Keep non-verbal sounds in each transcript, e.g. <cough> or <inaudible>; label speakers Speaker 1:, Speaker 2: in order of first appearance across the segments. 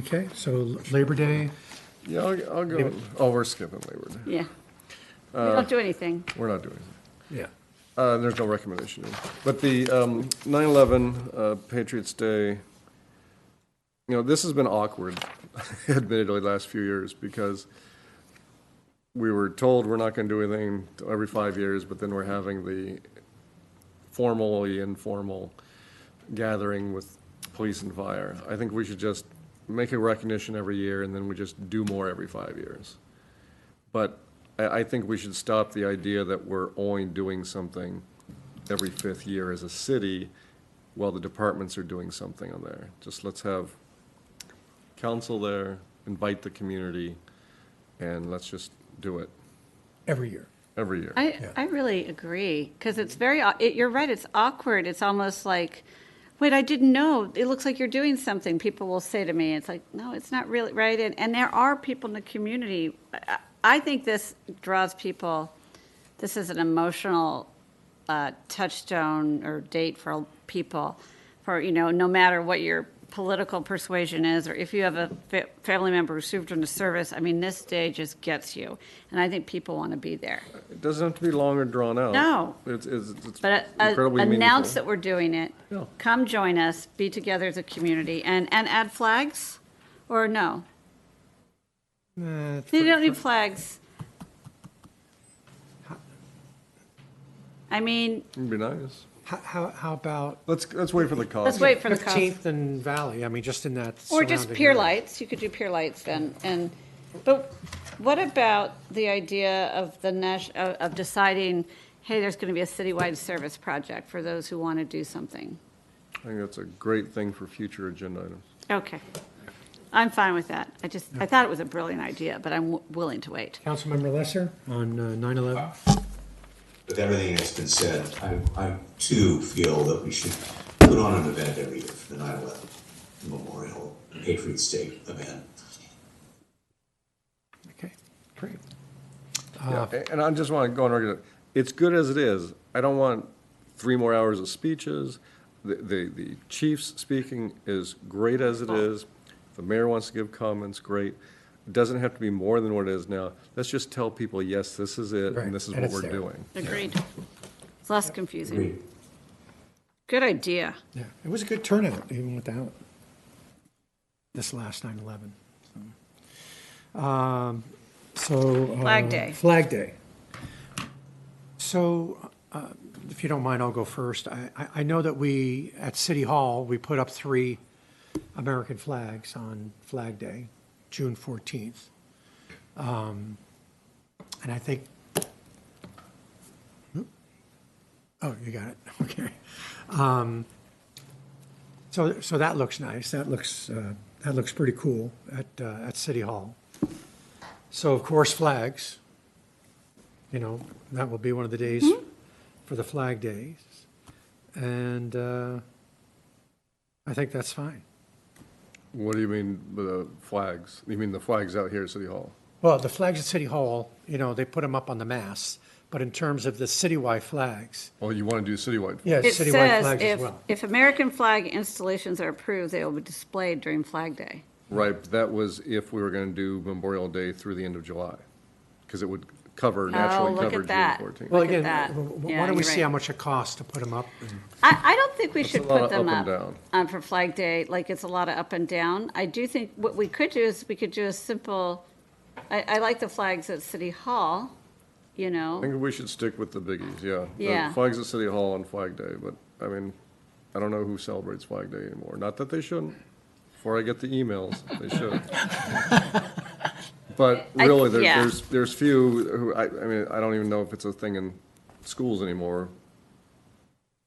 Speaker 1: Okay, so Labor Day,
Speaker 2: Yeah, I'll, I'll go, oh, we're skipping Labor Day.
Speaker 3: Yeah. We don't do anything.
Speaker 2: We're not doing it.
Speaker 1: yeah.
Speaker 2: Uh, there's no recommendation. in. But the, um, 9/11 uh, Patriots Day, you know, this has been awkward, <laughs> admittedly, last few years, because we were told we're not gonna do anything every five years, but then we're having the formally informal gathering with police and fire. I think we should just make a recognition every year, and then we just do more every five years. But I, I think we should stop the idea that we're only doing something every fifth year as a city while the departments are doing something on there. Just let's have council there, invite the community, and let's just do it
Speaker 1: Every year.
Speaker 2: every year.
Speaker 3: I, I really agree, because it's very, au- it- you're right, it's awkward. It's almost like, wait, I didn't know. It looks like you're doing something, people will say to me. It's like, no, it's not really, right? And, and there are people in the community. I- I- I think this draws people, this is an emotional uh, touchstone or date for people, for, you know, no matter what your political persuasion is, or if you have a fa- family member who served in the service, I mean, this day just gets you. And I think people want to be there.
Speaker 2: It doesn't have to be long or drawn out.
Speaker 3: No.
Speaker 2: It's, it's it's
Speaker 3: But uh,
Speaker 2: incredibly
Speaker 3: announce
Speaker 2: meaningful.
Speaker 3: that we're doing it.
Speaker 2: Yeah.
Speaker 3: Come join us, be together as a community, and, and add flags, or no?
Speaker 1: Nah,
Speaker 3: You don't need flags. I mean,
Speaker 2: It'd be nice.
Speaker 1: How, how, how about
Speaker 2: Let's, let's wait for the call.
Speaker 3: let's wait for the cost.
Speaker 1: Fifteenth and Valley, I mean, just in that
Speaker 3: Or just
Speaker 1: surrounding
Speaker 3: pier
Speaker 1: area.
Speaker 3: lights, you could do pier lights then, and, but what about the idea of the Nash, of of deciding, hey, there's going to be a citywide service project for those who want to do something?
Speaker 2: I think that's a great thing for future agenda items.
Speaker 3: Okay. I'm fine with that. I just, I thought it was a brilliant idea, but I'm w- willing to wait.
Speaker 1: Councilmember Lesser on uh, nine eleven?
Speaker 4: With everything that's been said, I, I too feel that we should put on an event every year for the 9/11 Memorial Patriots Day event.
Speaker 1: Okay, great. Uh,
Speaker 2: Yeah, And I just want to go on record, it's good as it is. I don't want three more hours of speeches. The, the, the chief's speaking is great as it is. If The mayor wants to give comments, great. It Doesn't have to be more than what it is now. Let's just tell people, yes, this is it,
Speaker 1: Right,
Speaker 2: and this is
Speaker 1: and
Speaker 2: what
Speaker 1: it's
Speaker 2: we're
Speaker 1: there.
Speaker 2: doing.
Speaker 3: Agreed. It's less confusing.
Speaker 4: Agreed.
Speaker 3: Good idea.
Speaker 1: Yeah, it was a good turnout, even without this last 9/11. so. Um, So. uh,
Speaker 3: Flag Day.
Speaker 1: Flag Day. So, uh, if you don't mind, I'll go first. I, I- I know that we, at City Hall, we put up three American flags on Flag Day, June 14th. Um, And I think Hmm? Oh, you got it. <laughs> Okay. Um, so, so that looks nice. That looks, uh, that looks pretty cool at, uh, at City Hall. So of course, flags, you know, that will be one of the days
Speaker 3: Mm-hmm.
Speaker 1: for the flag days. And, uh, I think that's fine.
Speaker 2: What do you mean by the flags? You mean the flags out here at City Hall?
Speaker 1: Well, the flags at City Hall, you know, they put them up on the mast, but in terms of the citywide flags,
Speaker 2: Oh, you want to do citywide?
Speaker 1: yeah,
Speaker 3: It
Speaker 1: citywide
Speaker 3: says
Speaker 1: flags as
Speaker 3: if,
Speaker 1: well.
Speaker 3: if American flag installations are approved, they will be displayed during Flag Day.
Speaker 2: Right, but that was if we were going to do Memorial Day through the end of July, because it would cover, naturally
Speaker 3: Oh, look at
Speaker 2: cover June
Speaker 3: that.
Speaker 2: fourteenth.
Speaker 1: Well,
Speaker 3: Look at
Speaker 1: again,
Speaker 3: that.
Speaker 1: w- w-
Speaker 3: Yeah,
Speaker 1: why don't we
Speaker 3: you're
Speaker 1: see how
Speaker 3: right.
Speaker 1: much it costs to put them up?
Speaker 3: I, I don't think we should
Speaker 2: a lot
Speaker 3: put
Speaker 2: of
Speaker 3: them
Speaker 2: up and
Speaker 3: up um, for Flag Day, like it's a lot of up and down. I do think what we could do is we could do a simple, I, I like the flags at City Hall, you
Speaker 2: I
Speaker 3: know?
Speaker 2: think we should stick with the biggies, yeah. The
Speaker 3: Yeah.
Speaker 2: Flags at City Hall on Flag Day, but, I mean, I don't know who celebrates Flag Day anymore. Not that they shouldn't. Before I get the emails, they
Speaker 3: <laughs>
Speaker 2: should. But
Speaker 3: I-
Speaker 2: really, there-
Speaker 3: yeah.
Speaker 2: there's, there's few who, I, I mean, I don't even know if it's a thing in schools anymore.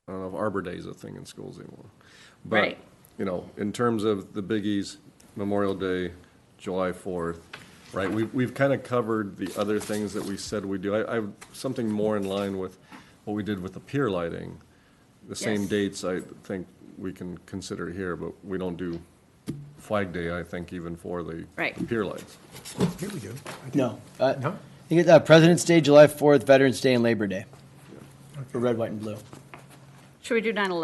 Speaker 2: I don't know if Arbor Day is a thing in schools anymore. But,
Speaker 3: Right.
Speaker 2: you know, in terms of the biggies, Memorial Day, July 4th, right? We've, we've kind of covered the other things that we said we do. I, I, something more in line with what we did with the pier lighting. The same
Speaker 3: Yes.
Speaker 2: dates, I think, we can consider here, but we don't do Flag Day, I think, even for the
Speaker 3: Right.
Speaker 2: pier lights.
Speaker 1: Here we do. I think-
Speaker 5: No. Uh,
Speaker 1: No?
Speaker 5: You get uh, President's Day, July 4th, Veterans Day, and Labor Day. For red, white, and blue.
Speaker 3: Should we do 9/11?